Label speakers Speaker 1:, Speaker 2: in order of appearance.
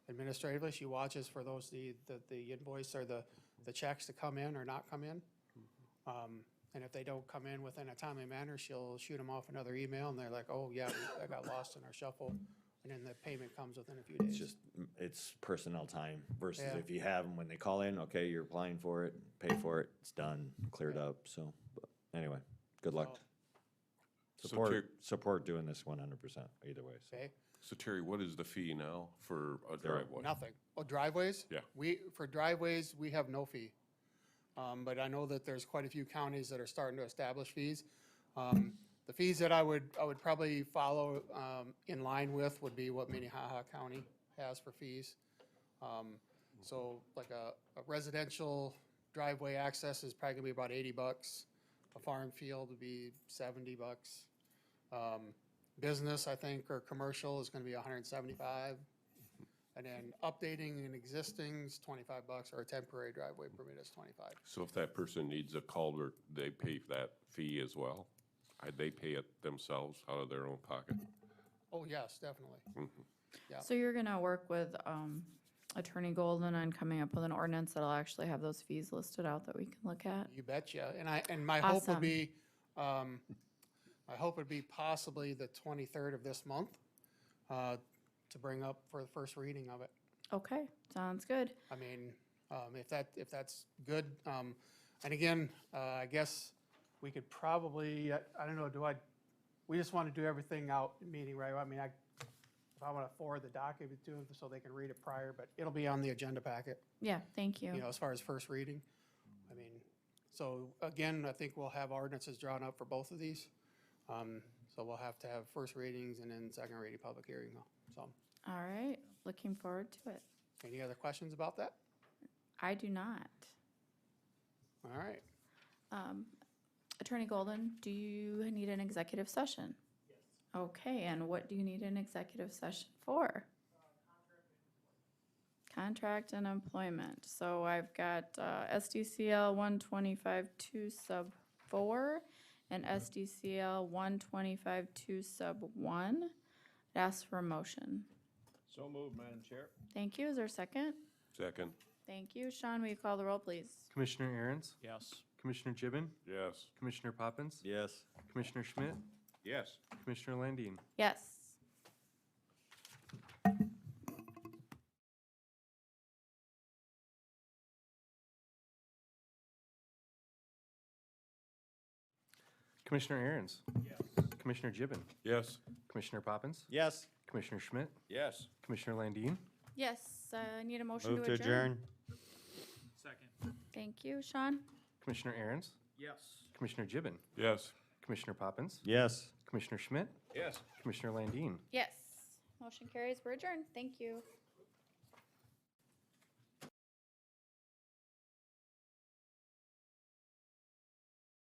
Speaker 1: administratively. She watches for those, the, the- the invoice or the, the checks to come in or not come in.
Speaker 2: Mm-hmm.
Speaker 1: Um, And if they don't come in within a timely manner, she'll shoot them off another email and they're like, oh, yeah, we- I got lost in our shuffle. And then the payment comes within a few
Speaker 2: It's
Speaker 1: days.
Speaker 2: just, it's personnel time versus
Speaker 1: Yeah.
Speaker 2: if you have them when they call in, okay, you're applying for it, pay for it, it's done, cleared
Speaker 1: Yeah.
Speaker 2: up, so, but anyway, good luck.
Speaker 3: So
Speaker 2: Support,
Speaker 3: Terry-
Speaker 2: support doing this one hundred percent either way, so.
Speaker 1: Okay,
Speaker 3: So Terry, what is the fee now for a driveway?
Speaker 1: nothing. Oh, driveways?
Speaker 3: Yeah.
Speaker 1: We, for driveways, we have no fee. Um, but I know that there's quite a few counties that are starting to establish fees. Um, the fees that I would, I would probably follow, um, in line with would be what Minnehaha County has for fees. Um, so like a, a residential driveway access is probably gonna be about eighty bucks. A farm field would be seventy bucks. Um, business, I think, or commercial is gonna be hundred and seventy-five. And then updating an existing is twenty-five bucks, or a temporary driveway permit is twenty-five.
Speaker 3: So if that person needs a culvert, they pay for that fee as well? Uh, They pay it themselves out of their own pocket?
Speaker 1: Oh, yes, definitely. Yeah.
Speaker 4: So you're gonna work with, um, Attorney Golden on coming up with an ordinance that'll actually have those fees listed out that we can look at?
Speaker 1: You betcha. And I, and my hope would
Speaker 4: Awesome.
Speaker 1: be, um, my hope would be possibly the twenty-third of this month, uh, to bring up for the first reading of it.
Speaker 4: Okay, sounds good.
Speaker 1: I mean, um, if that, if that's good, um, and again, uh, I guess we could probably, I, I don't know, do I, we just want to do everything out in meeting, right? I mean, I, if I want to forward the document to them so they can read it prior, but it'll be on the agenda packet,
Speaker 4: Yeah, thank
Speaker 1: you
Speaker 4: you.
Speaker 1: know, as far as first reading. I mean, so again, I think we'll have ordinances drawn up for both of these. Um, so we'll have to have first readings and then second reading, public hearing, so.
Speaker 4: All right, looking forward to it.
Speaker 1: Any other questions about that?
Speaker 4: I do not.
Speaker 1: All right.
Speaker 4: Um, Attorney Golden, do you need an executive session? Yes. Okay, and what do you need an executive session for? Contract and employment. So I've got uh, SDCL one twenty-five two sub four and SDCL one twenty-five two sub one. I'd Ask for a motion.
Speaker 5: So moved, Madam Chair.
Speaker 4: Thank you. Is there a second?
Speaker 3: Second?
Speaker 4: Thank you. Sean, will you call the roll, please?
Speaker 6: Commissioner Aaron's,
Speaker 5: Yes.
Speaker 6: Commissioner Gibbon,
Speaker 3: Yes.
Speaker 6: Commissioner Poppins,
Speaker 2: Yes.
Speaker 6: Commissioner Schmidt,
Speaker 3: Yes.
Speaker 6: Commissioner Landine.
Speaker 4: Yes.
Speaker 6: Commissioner Aaron's. Commissioner Gibbon,
Speaker 3: Yes.
Speaker 6: Commissioner Poppins,
Speaker 2: Yes.
Speaker 6: Commissioner Schmidt,
Speaker 3: Yes.
Speaker 6: Commissioner Landine.
Speaker 4: Yes, uh, I need a motion
Speaker 2: Move to adjourn.
Speaker 5: Second.
Speaker 4: Thank you, Sean.
Speaker 6: Commissioner Aaron's,
Speaker 5: Yes.
Speaker 6: Commissioner Gibbon,
Speaker 3: Yes.
Speaker 6: Commissioner Poppins,
Speaker 2: Yes.
Speaker 6: Commissioner Schmidt,
Speaker 3: Yes.
Speaker 6: Commissioner Landine.
Speaker 4: Yes. Motion carries. We're adjourned. Thank you.